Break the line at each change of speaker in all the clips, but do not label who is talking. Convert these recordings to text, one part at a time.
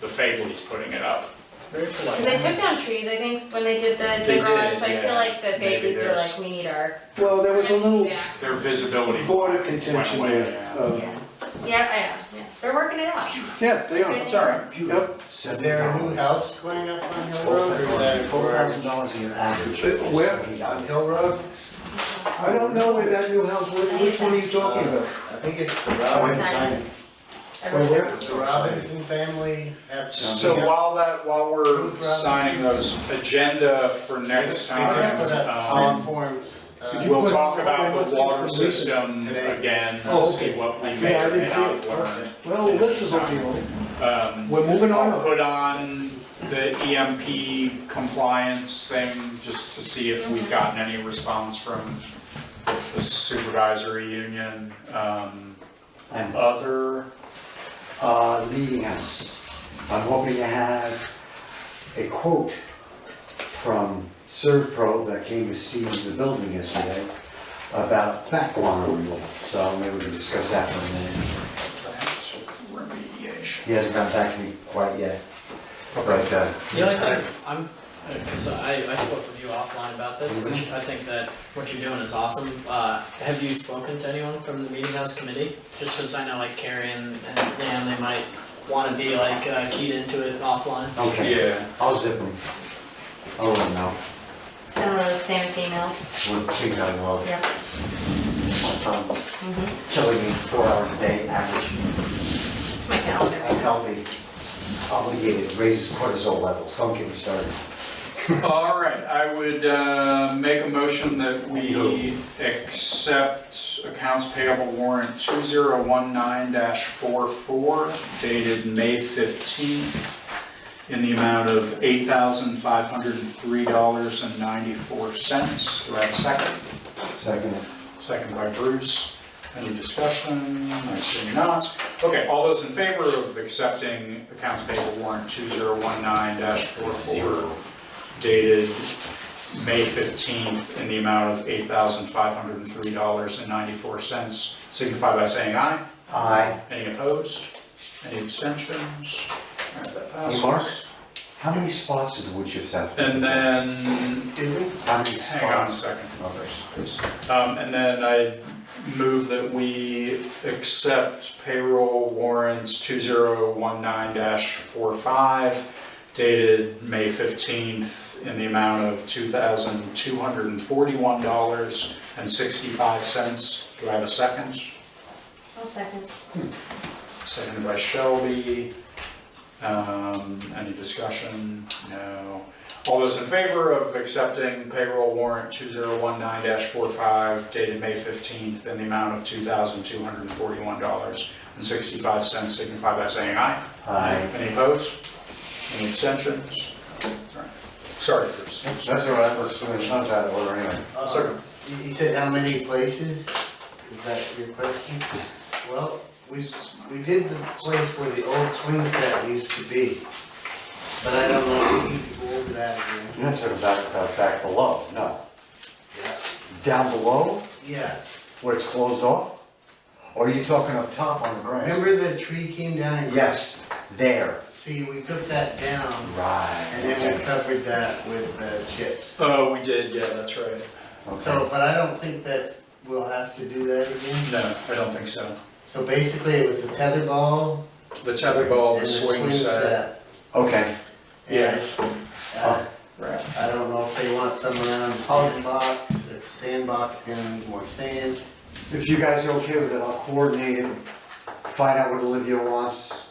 the Fabley's putting it up.
It's very
Cause they
polite.
took down trees, I think, when they did the,
They
the garage,
did,
but I
yeah.
feel like the
Maybe
babies are
there's-
like, we need our.
Well, there was a little
Yeah,
Their visibility.
border contention
Went away,
there.
yeah.
uh,
yeah, yeah, I am, yeah, they're working it out.
Yeah, they are.
Good.
Yep.
Is there a new house going up on Hill Road or that?
Four thousand dollars a year average.
Uh, where?
On Hill Road?
I don't know where that new house, which which one are you talking about?
I think it's the
I went
Robinson,
inside.
I
Well,
really-
where-
the Robinson family have
So
something up.
while that, while we're
Ruth Robinson.
signing those agenda for next
They did
time,
put up
um,
Solid forms, uh,
you
we'll
put
talk
all
about
of
the
us just
water
for leaving
system
today?
again,
Oh,
to see what we
Yeah,
may
I
or may
didn't see
not
it.
learn.
Well, this is okay,
Um,
we're moving on.
I'll put on the EMP compliance thing, just to see if we've gotten any response from the supervisory union. Um,
And,
Other,
uh, meeting house, I'm hoping to have a quote from Servpro that came to see the building yesterday about back guano removal, so maybe we can discuss that for a minute.
remediation.
He hasn't gotten back to me quite yet, but, uh,
The only time I'm, because I, I spoke with you offline about this, which I think that what you're doing is awesome. Uh, have you spoken to anyone from the meeting house committee? Just since I know like Carrie and, and Dan, they might wanna be like uh, keyed into it offline.
okay,
Yeah,
I'll zip them. I'll let 'em know,
It's been one of those famous emails,
what things I love,
yeah.
small problems,
Mhm.
killing me four hours a day, average.
It's my calendar.
unhealthy, obligated, raises cortisol levels, don't get me started.
all right, I would uh, make a motion that we accept accounts payable warrant two zero one nine 44 dated May fifteenth in the amount of eight thousand five hundred and three dollars and ninety-four cents. Do I have a second?
Second,
Second by Bruce. Any discussion? I see not. Okay, all those in favor of accepting accounts payable warrant 2019-44 dated May 15th in the amount of $8,503.94, signify by saying aye.
aye.
Any opposed? Any abstentions? All right, that passes.
Hey, Mark. How many spots did the wood chips have?
And then
Excuse me?
How many
Hang on a
spots?
second.
Others.
Um, and then I move that we accept payroll warrants two zero one nine 45 dated May fifteenth in the amount of two thousand two hundred and forty-one dollars and sixty-five cents. Do I have a second?
I'll second.
Seconded by Shelby. Um, any discussion? No. All those in favor of accepting payroll warrant two zero one nine 45 dated May fifteenth in the amount of two thousand two hundred and forty-one dollars and sixty-five cents signify by saying aye.
Aye.
Any opposed? Any abstentions? Alright. Sorry, Bruce.
That's all right, let's, let's not out of order anyway.
Uh,
Sir.
You, you said how many places? Is that your question? Well, we, we did the place where the old swing set used to be. But I don't know if you could go over that again.
You're not talking about, about back below, no.
Yeah.
Down below,
Yeah,
where it's closed off? Or are you talking up top on the grass?
remember the tree came down? and-
Yes, there,
See, we took that down
right.
and then we covered that with uh, chips.
Oh, we did, yeah, that's right.
So, but I don't think that we'll have to do that again.
No, I don't think so.
So basically, it was the tether ball
The tetherball,
and
the
the
swing
swing
set.
set.
Okay,
Yeah.
Uh,
Right.
I don't know if they want someone on the sandbox, if the sandbox is gonna need more sand.
if you guys are okay with it, I'll coordinate it, find out what Olivia wants,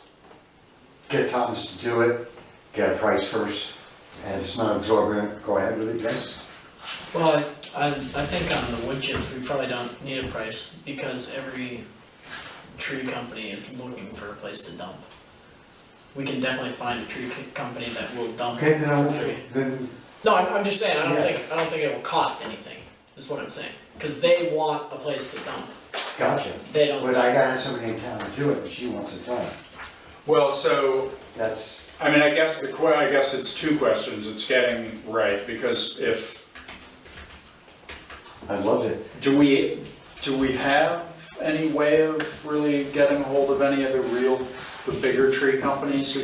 get Thomas to do it, get a price first, and if it's not exorbitant, go ahead with it, yes?
Well, I, I, I think on the wood chips, we probably don't need a price because every tree company is looking for a place to dump. We can definitely find a tree co- company that will dump
Okay, then I'll,
for free.
then,
No, I'm, I'm just saying, I don't
Yeah.
think, I don't think it will cost anything, is what I'm saying, cause they want a place to dump,
gotcha.
they don't.
But I gotta have somebody in town to do it, and she wants it done,
Well, so
that's,
I mean, I guess the que, I guess it's two questions, it's getting right, because if,
I loved it.
do we, do we have any way of really getting a hold of any of the real, the bigger tree companies who